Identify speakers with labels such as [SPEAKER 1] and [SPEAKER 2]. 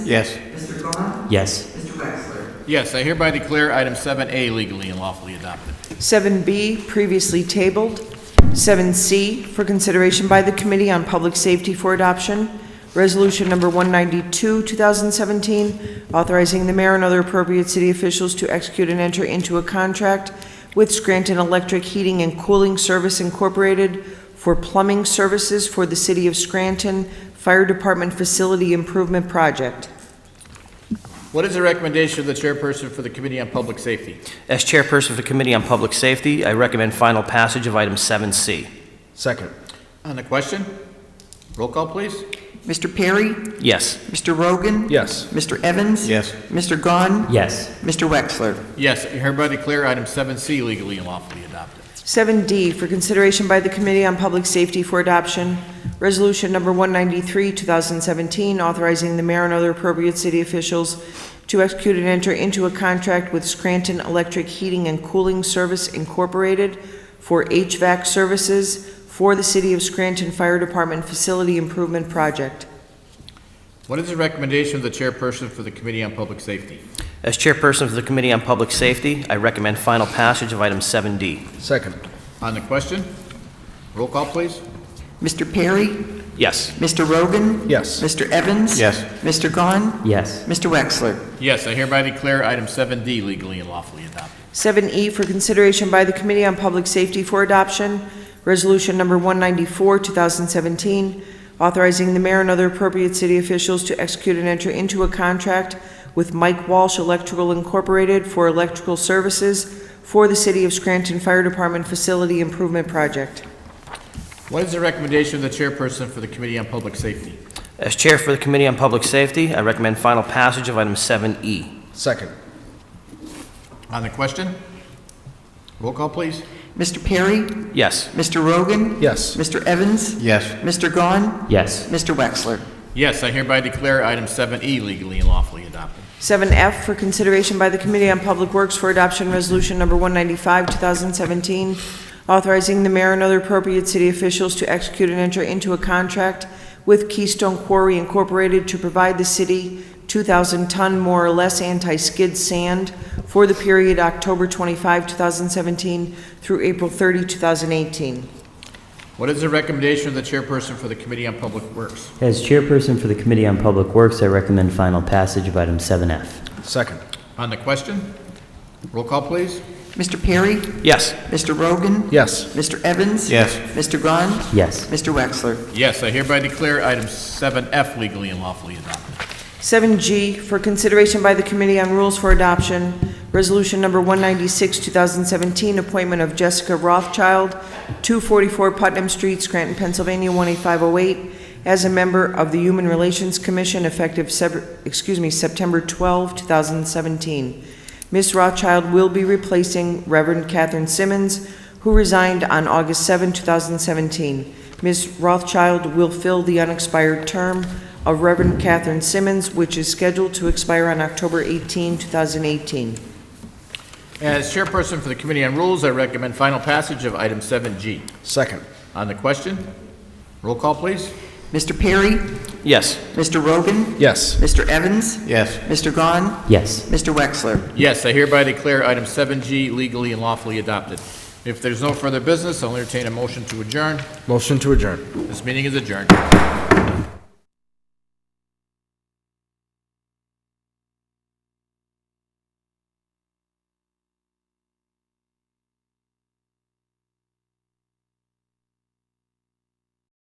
[SPEAKER 1] Yes.
[SPEAKER 2] Mr. Vaughn?
[SPEAKER 3] Yes.
[SPEAKER 2] Mr. Wexler?
[SPEAKER 4] Yes, I hereby declare item 7A legally and lawfully adopted.
[SPEAKER 5] 7B, previously tabled. 7C, for consideration by the Committee on Public Safety for Adoption, Resolution Number 192, 2017, authorizing the mayor and other appropriate city officials to execute and enter into a contract with Scranton Electric Heating and Cooling Service Incorporated for plumbing services for the City of Scranton Fire Department Facility Improvement Project.
[SPEAKER 4] What is the recommendation of the chairperson for the Committee on Public Safety?
[SPEAKER 3] As chairperson of the Committee on Public Safety, I recommend final passage of item 7C.
[SPEAKER 1] Second.
[SPEAKER 4] On the question? Roll call, please.
[SPEAKER 2] Mr. Perry?
[SPEAKER 3] Yes.
[SPEAKER 2] Mr. Rogan?
[SPEAKER 1] Yes.
[SPEAKER 2] Mr. Evans?
[SPEAKER 1] Yes.
[SPEAKER 2] Mr. Gahn?
[SPEAKER 3] Yes.
[SPEAKER 2] Mr. Wexler?
[SPEAKER 4] Yes, I hereby declare item 7C legally and lawfully adopted.
[SPEAKER 5] 7D for consideration by the Committee on Public Safety for Adoption, Resolution Number 193, 2017, authorizing the mayor and other appropriate city officials to execute and enter into a contract with Scranton Electric Heating and Cooling Service Incorporated for HVAC services for the City of Scranton Fire Department Facility Improvement Project.
[SPEAKER 4] What is the recommendation of the chairperson for the Committee on Public Safety?
[SPEAKER 3] As chairperson of the Committee on Public Safety, I recommend final passage of item 7D.
[SPEAKER 1] Second.
[SPEAKER 4] On the question? Roll call, please.
[SPEAKER 2] Mr. Perry?
[SPEAKER 3] Yes.
[SPEAKER 2] Mr. Rogan?
[SPEAKER 1] Yes.
[SPEAKER 2] Mr. Evans?
[SPEAKER 1] Yes.
[SPEAKER 2] Mr. Gahn?
[SPEAKER 3] Yes.
[SPEAKER 2] Mr. Wexler?
[SPEAKER 4] Yes, I hereby declare item 7D legally and lawfully adopted.
[SPEAKER 5] 7E E, for consideration by the Committee on Public Safety for Adoption, Resolution Number 194, 2017, authorizing the mayor and other appropriate city officials to execute and enter into a contract with Mike Walsh Electrical Incorporated for electrical services for the City of Scranton Fire Department Facility Improvement Project.
[SPEAKER 4] What is the recommendation of the chairperson for the Committee on Public Safety?
[SPEAKER 3] As chair for the Committee on Public Safety, I recommend final passage of item E. 7E.
[SPEAKER 1] Second.
[SPEAKER 4] On the question? Roll call, please.
[SPEAKER 2] Mr. Perry?
[SPEAKER 3] Yes.
[SPEAKER 2] Mr. Rogan?
[SPEAKER 1] Yes.
[SPEAKER 2] Mr. Evans?
[SPEAKER 1] Yes.
[SPEAKER 2] Mr. Gahn?
[SPEAKER 3] Yes.
[SPEAKER 2] Mr. Wexler?
[SPEAKER 4] Yes, I hereby declare item 7E legally and lawfully adopted.
[SPEAKER 5] 7F for consideration by the Committee on Public Works for Adoption Resolution Number 195, 2017, authorizing the mayor and other appropriate city officials to execute and enter into a contract with Keystone Quarry Incorporated to provide the city 2,000-ton more or less anti-skid sand for the period October 25, 2017 through April 30, 2018.
[SPEAKER 4] What is the recommendation of the chairperson for the Committee on Public Works?
[SPEAKER 6] As chairperson for the Committee on Public Works, I recommend final passage of item 7F.
[SPEAKER 1] Second.
[SPEAKER 4] On the question? Roll call, please.
[SPEAKER 2] Mr. Perry?
[SPEAKER 3] Yes.
[SPEAKER 2] Mr. Rogan?
[SPEAKER 1] Yes.
[SPEAKER 2] Mr. Evans?
[SPEAKER 1] Yes.
[SPEAKER 2] Mr. Gahn?
[SPEAKER 6] Yes.
[SPEAKER 2] Mr. Wexler?
[SPEAKER 4] Yes, I hereby declare item 7F legally and lawfully adopted.
[SPEAKER 5] 7G for consideration by the Committee on Rules for Adoption, Resolution Number 196, 2017, appointment of Jessica Rothschild, 244 Putnam Street, Scranton, Pennsylvania, 18508, as a member of the Human Relations Commission effective, Sep- excuse me, September 12, 2017. Ms. Rothschild will be replacing Reverend Catherine Simmons, who resigned on August 7, 2017. Ms. Rothschild will fill the unexpired term of Reverend Catherine Simmons, which is scheduled to expire on October 18, 2018.
[SPEAKER 4] As chairperson for the Committee on Rules, I recommend final passage of item 7G.
[SPEAKER 1] Second.
[SPEAKER 4] On the question? Roll call, please.
[SPEAKER 2] Mr. Perry?
[SPEAKER 3] Yes.
[SPEAKER 2] Mr. Rogan?
[SPEAKER 1] Yes.
[SPEAKER 2] Mr. Evans?
[SPEAKER 1] Yes.
[SPEAKER 2] Mr. Gahn?
[SPEAKER 6] Yes.
[SPEAKER 2] Mr. Wexler?
[SPEAKER 4] Yes, I hereby declare item 7G legally and lawfully adopted. If there's no further business, I'll entertain a motion to adjourn.
[SPEAKER 1] Motion to adjourn.
[SPEAKER 4] This meeting is adjourned.